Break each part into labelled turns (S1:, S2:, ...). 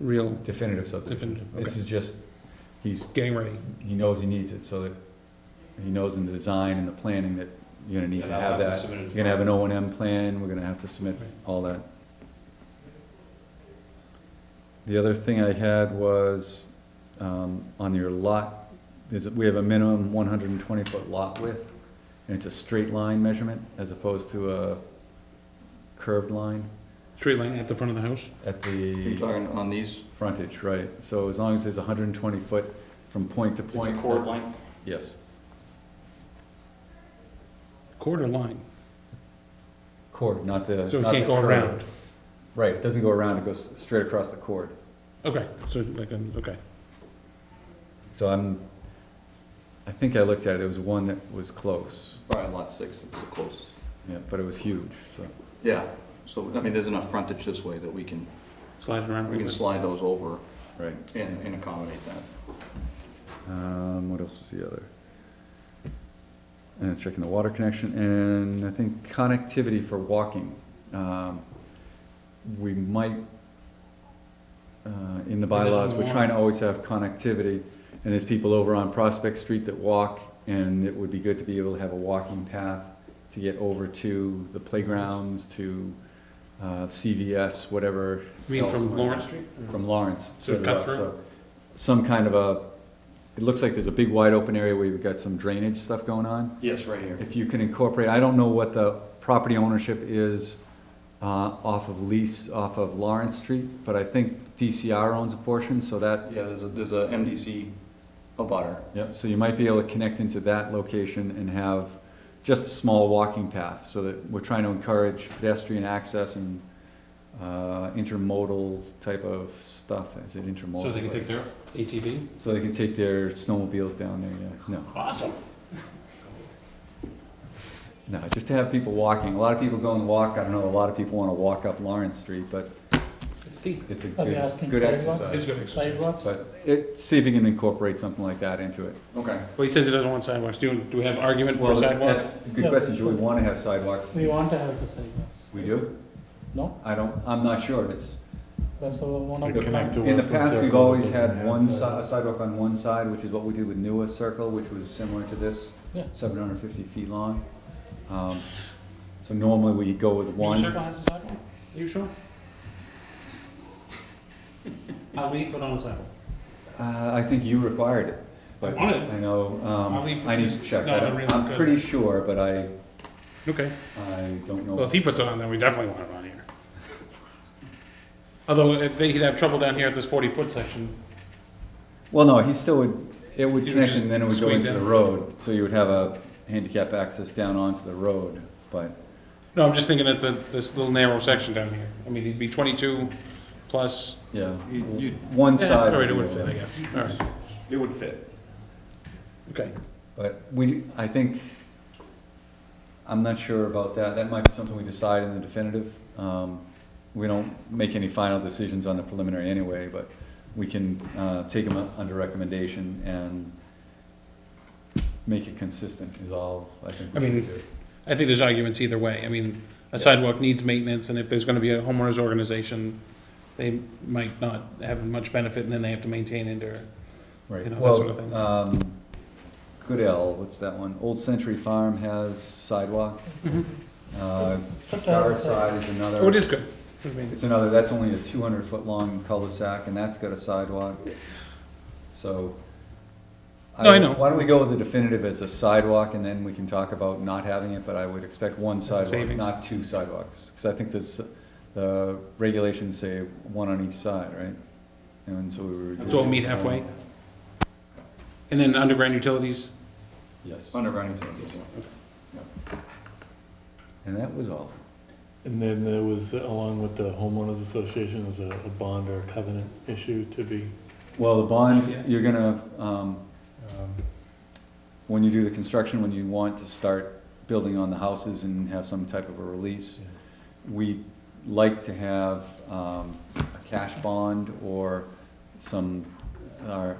S1: real
S2: definitive subdivision.
S1: Definitive,
S2: This
S1: okay.
S2: is just, he's,
S1: getting ready.
S2: he knows he needs it, so that, he knows in the design and the planning that you're gonna need to
S3: And I'll
S2: have
S3: them
S2: that.
S3: submitted
S2: You're gonna have an O and M plan, we're gonna have to submit
S1: Right.
S2: all that. The other thing I had was, um, on your lot, is, we have a minimum one hundred and twenty foot lot width, and it's a straight line measurement as opposed to a curved line
S1: Tree line at the front of the house?
S2: at
S4: You're
S2: the
S4: talking on these,
S2: frontage, right? So as long as there's hundred and twenty foot from point to
S3: It's a
S2: point.
S3: chord length,
S2: Yes,
S1: Quarter line,
S2: chord, not the.
S1: so it
S2: not
S1: can't
S2: the
S1: go
S2: curve.
S1: around.
S2: Right, it doesn't go around, it goes straight across the chord.
S1: Okay, so like, um, okay.
S2: So I'm, I think I looked at it, it was one that was close,
S4: probably lot six, it's the closest.
S2: yeah, but it was huge, so.
S4: Yeah, so, I mean, there's enough frontage this way that we can,
S1: Slide it around.
S4: we can slide those over
S2: Right.
S4: and, and accommodate that.
S2: Um, what else was the other? And checking the water connection, and I think connectivity for walking. Um, We might, uh, in the
S1: Well, there's
S2: bylaws, we're
S1: more.
S2: trying to always have connectivity, and there's people over on Prospect Street that walk, and it would be good to be able to have a walking path to get over to the playgrounds, to, uh, CVS, whatever,
S1: You mean from Lawrence Street?
S2: from Lawrence.
S1: So
S2: further up,
S1: cut through?
S2: so Some kind of a, it looks like there's a big wide open area where you've got some drainage stuff going on.
S4: Yes, right here.
S2: If you can incorporate, I don't know what the property ownership is uh, off of lease, off of Lawrence Street, but I think DCR owns a portion, so that,
S4: Yeah, there's a, there's a MDC abutter.
S2: yep, so you might be able to connect into that location and have just a small walking path, so that we're trying to encourage pedestrian access and uh, intermodal type of stuff, is it intermodal?
S1: So they can take their ATV?
S2: So they can take their snowmobiles down there, yeah, no,
S1: Awesome.
S2: no, just to have people walking, a lot of people go and walk, I don't know, a lot of people wanna walk up Lawrence Street, but
S1: It's steep.
S2: it's a
S5: Are they
S2: good,
S5: asking
S2: good
S1: It's
S2: exercise.
S1: good exercise.
S5: Sidewalks?
S2: But it, see if you can incorporate something like that into it.
S4: Okay,
S1: Well, he says he doesn't want sidewalks. Do, do we have argument for
S2: Well,
S1: sidewalks?
S2: that's a good question, do we wanna have sidewalks?
S5: We want to have the sidewalks,
S2: We do?
S5: no?
S2: I don't, I'm not sure, it's,
S5: That's our one of
S2: To
S5: the.
S2: connect
S5: plan.
S2: in the past, we've always had one si- a sidewalk on one side, which is what we did with Nua Circle, which was similar to this,
S5: Yeah.
S2: seven hundred fifty feet long. Um, So normally we go with one.
S1: Circle has a sidewalk? Are you sure? Ali put on a sidewalk.
S2: Uh, I think you required it, but
S1: On it.
S2: I know,
S1: I'll leave-
S2: um, I need to check.
S1: No,
S2: I
S1: they're
S2: don't-
S1: really
S2: I'm
S1: good.
S2: pretty sure, but I,
S1: Okay.
S2: I don't know.
S1: Well, if he puts it on, then we definitely want it on here. Although if they- he'd have trouble down here at this forty foot section.
S2: Well, no, he still would, it would
S1: He would
S2: connect
S1: just
S2: and then it would go
S1: squeeze
S2: into the
S1: in.
S2: road, so you would have a handicap access down onto the road, but,
S1: No, I'm just thinking at the, this little narrow section down here. I mean, it'd be twenty-two plus.
S2: yeah.
S3: You-
S4: Mm-hmm.
S3: you-
S2: One
S1: Yeah,
S2: side.
S1: All right, it would
S2: would be
S1: fit,
S2: over.
S1: I guess. All right.
S3: it would fit.
S1: Okay.
S2: But we, I think, I'm not sure about that, that might be something we decide in the definitive. Um, We don't make any final decisions on the preliminary anyway, but we can uh, take them under recommendation and make it consistent is all I think
S1: I
S2: we
S1: mean,
S2: should do.
S1: I think there's arguments either way. I mean, a
S2: Yes.
S1: sidewalk needs maintenance, and if there's gonna be a homeowners organization, they might not have much benefit, and then they have to maintain it or,
S2: Right,
S1: you know, that sort of thing.
S2: well, um, Goodell, what's that one? Old Century Farm has sidewalk. Uh,
S5: Put down
S2: Our
S5: the sidewalk.
S2: side is another.
S1: oh, it is good. I mean,
S2: It's another, that's only a two hundred foot long cul-de-sac, and that's got a sidewalk, so.
S1: No, I know.
S2: Why don't we go with the definitive as a sidewalk, and then we can talk about not having it, but I would expect one
S1: a
S2: sidewalk,
S1: savings.
S2: not two sidewalks. Because I think this, the regulations say one on each side, right? And so we were. um,
S1: So we'll meet halfway? And then underground utilities,
S2: Yes,
S4: underground utilities, yeah.
S2: and that was all.
S6: And then there was, along with the homeowners association, was a, a bond or a covenant issue to be,
S2: Well, the bond,
S1: Yeah.
S2: you're gonna, um,
S6: um,
S2: when you do the construction, when you want to start building on the houses and have some type of a release, we like to have um, a cash bond or some, our,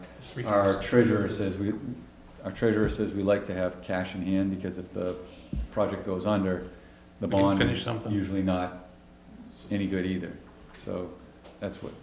S2: our treasurer says we, our treasurer says we like to have cash in hand because if the project goes under, the
S1: We can
S2: bond
S1: finish
S2: is
S1: something.
S2: usually not any good either. So that's what